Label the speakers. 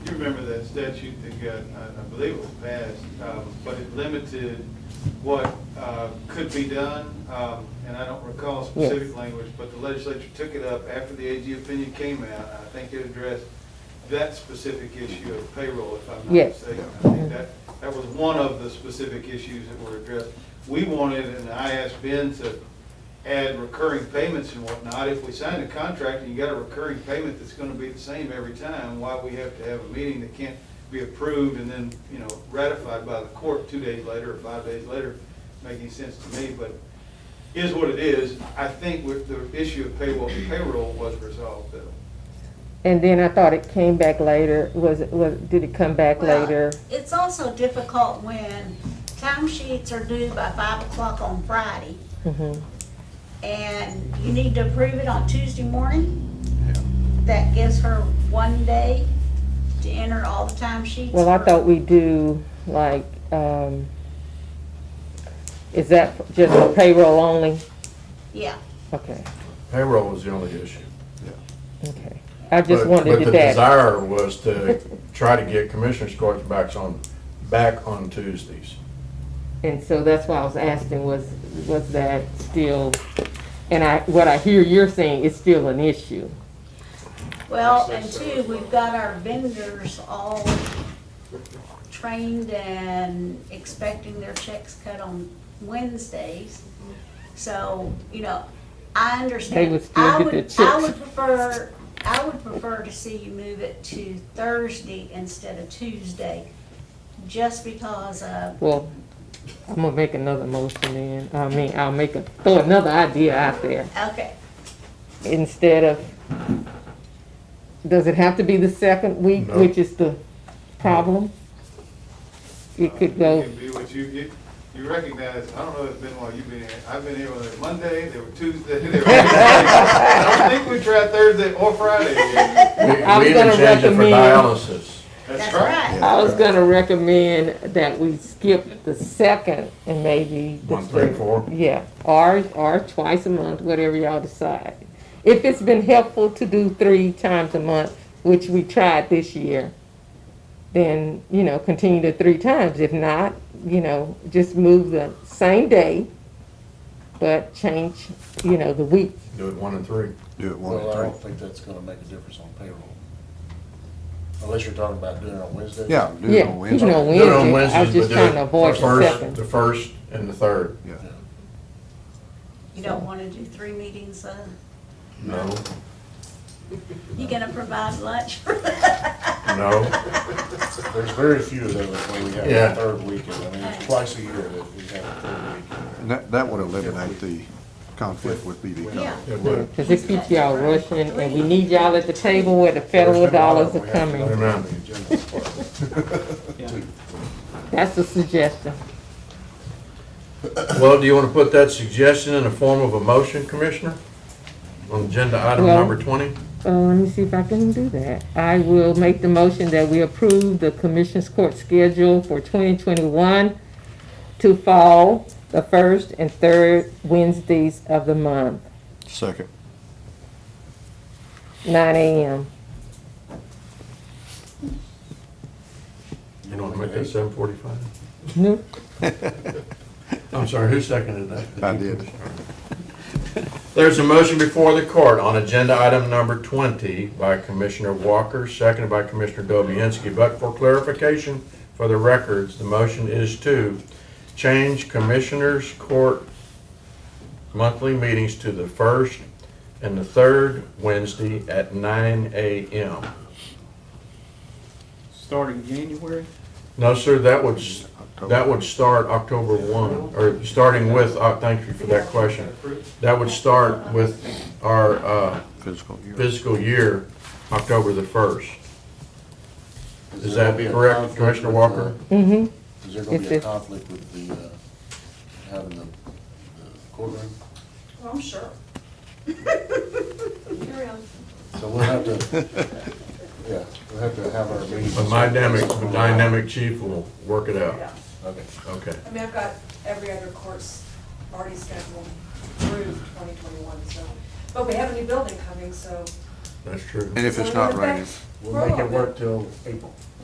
Speaker 1: remember that statute that got, I- I believe it was passed, um, but it limited what uh, could be done, um, and I don't recall
Speaker 2: Yes.
Speaker 1: specific language, but the legislature took it up after the AG opinion came out. I think it addressed that specific issue of payroll, if I'm not
Speaker 2: Yes.
Speaker 1: mistaken. I think that, that was one of the specific issues that were addressed. We wanted, and I asked Ben to add recurring payments and whatnot. If we sign a contract and you got a recurring payment that's gonna be the same every time, why we have to have a meeting that can't be approved and then, you know, ratified by the court two days later or five days later, making sense to me, but is what it is. I think with the issue of payroll, payroll was resolved though.
Speaker 2: And then I thought it came back later, was, it was, did it come back
Speaker 3: Well,
Speaker 2: later?
Speaker 3: It's also difficult when timesheets are due by five o'clock on Friday,
Speaker 2: Mhm.
Speaker 3: and you need to approve it on Tuesday morning. That gives her one day to enter all the timesheets.
Speaker 2: Well, I
Speaker 3: for-
Speaker 2: thought we do, like, um, is that just for payroll only?
Speaker 3: Yeah,
Speaker 2: Okay,
Speaker 4: Payroll was the only issue.
Speaker 2: okay. I just
Speaker 4: But-
Speaker 2: wanted to
Speaker 4: But the
Speaker 2: that.
Speaker 4: desire was to try to get commissioners' courts back on, back on Tuesdays.
Speaker 2: And so that's why I was asking, was, was that still, and I, what I hear you're saying is still an issue.
Speaker 3: well, and two, we've got our vendors all trained and expecting their checks cut on Wednesdays. So, you know, I understand.
Speaker 2: They would still
Speaker 3: I
Speaker 2: get
Speaker 3: would-
Speaker 2: their
Speaker 3: I
Speaker 2: checks.
Speaker 3: would prefer, I would prefer to see you move it to Thursday instead of Tuesday, just because of,
Speaker 2: Well, I'm gonna make another motion then. I mean, I'll make a, throw another idea out there.
Speaker 3: okay,
Speaker 2: instead of, does it have to be the second week,
Speaker 4: No.
Speaker 2: which is the problem? It could
Speaker 1: It
Speaker 2: go,
Speaker 1: Uh, can be what you, you, you recognize, I don't know, it's been while you've been here, I've been here on a Monday, there were Tuesday, there were. I don't think we tried Thursday or Friday.
Speaker 4: We we
Speaker 2: I was
Speaker 4: even
Speaker 2: gonna
Speaker 4: changed it for
Speaker 2: recommend-
Speaker 4: dialysis.
Speaker 3: that's right.
Speaker 2: I was gonna recommend that we skip the second and maybe. the
Speaker 4: One, three,
Speaker 2: third.
Speaker 4: four.
Speaker 2: Yeah, or, or twice a month, whatever y'all decide. If it's been helpful to do three times a month, which we tried this year, then, you know, continue to three times. If not, you know, just move the same day, but change, you know, the week.
Speaker 4: Do it one and three.
Speaker 5: Do it one
Speaker 6: Well, I
Speaker 5: and
Speaker 6: don't
Speaker 5: three.
Speaker 6: think that's gonna make a difference on payroll. Unless you're talking about doing it on Wednesday.
Speaker 5: Yeah, do
Speaker 2: Yeah,
Speaker 5: it on Wednesday.
Speaker 2: you know, we-
Speaker 4: Do it on
Speaker 2: Wednesday, I was
Speaker 4: Wednesdays,
Speaker 2: just
Speaker 4: but do
Speaker 2: trying to
Speaker 4: it
Speaker 2: avoid
Speaker 4: the
Speaker 2: the
Speaker 4: first-
Speaker 2: second.
Speaker 4: The first and the third.
Speaker 5: Yeah.
Speaker 3: You don't wanna do three meetings, uh,
Speaker 4: No,
Speaker 3: you gonna provide lunch for
Speaker 4: no.
Speaker 6: There's very few of those where we have
Speaker 4: Yeah.
Speaker 6: a third weekend. I mean, it's twice a year that we have a third weekend.
Speaker 5: And that, that would eliminate the conflict with BB.
Speaker 3: Yeah,
Speaker 4: It would.
Speaker 2: Cause it keeps y'all rushing and we need y'all at the table where the federal dollars are coming. That's a suggestion.
Speaker 4: Well, do you want to put that suggestion in the form of a motion, Commissioner? On agenda item
Speaker 2: Well-
Speaker 4: number 20?
Speaker 2: Uh, let me see if I can do that. I will make the motion that we approve the Commission's Court schedule for 2021 to fall the first and third Wednesdays of the month,
Speaker 5: Second.
Speaker 2: 9 a.m.
Speaker 4: You want to make that 7:45?
Speaker 2: No.
Speaker 4: I'm sorry, who seconded that?
Speaker 5: I did.
Speaker 4: There's a motion before the court on agenda item number 20 by Commissioner Walker, seconded by Commissioner Dobianski. But for clarification for the records, the motion is to change Commissioners Court monthly meetings to the first and the third Wednesday at 9 a.m.
Speaker 7: Starting January?
Speaker 4: No, sir, that would, s- that would start October 1, or starting with, uh, thank you for that question. That would start with our uh,
Speaker 5: Physical year.
Speaker 4: fiscal year, October the 1st. Is that
Speaker 6: Is there gonna be a
Speaker 4: correct, Commissioner
Speaker 6: conflict
Speaker 4: Walker?
Speaker 6: with
Speaker 2: Mm-hmm.
Speaker 6: the- Is there gonna
Speaker 2: If
Speaker 6: be a
Speaker 2: it-
Speaker 6: conflict with the, uh, having the the courtroom?
Speaker 3: I'm sure.
Speaker 6: So we'll have to, yeah, we'll have to have our meeting.
Speaker 4: But my dynamic, dynamic chief will work it
Speaker 5: Oh.
Speaker 4: out.
Speaker 8: Yeah,
Speaker 6: Okay.
Speaker 4: Okay.
Speaker 8: I mean, I've got every other course already scheduled through 2021, so, but we have a new building coming, so
Speaker 4: That's true.
Speaker 5: And if it's
Speaker 8: So
Speaker 5: not
Speaker 8: we're
Speaker 5: raining.
Speaker 8: back-
Speaker 6: We'll
Speaker 8: we're
Speaker 6: make it
Speaker 8: on.
Speaker 6: work till April.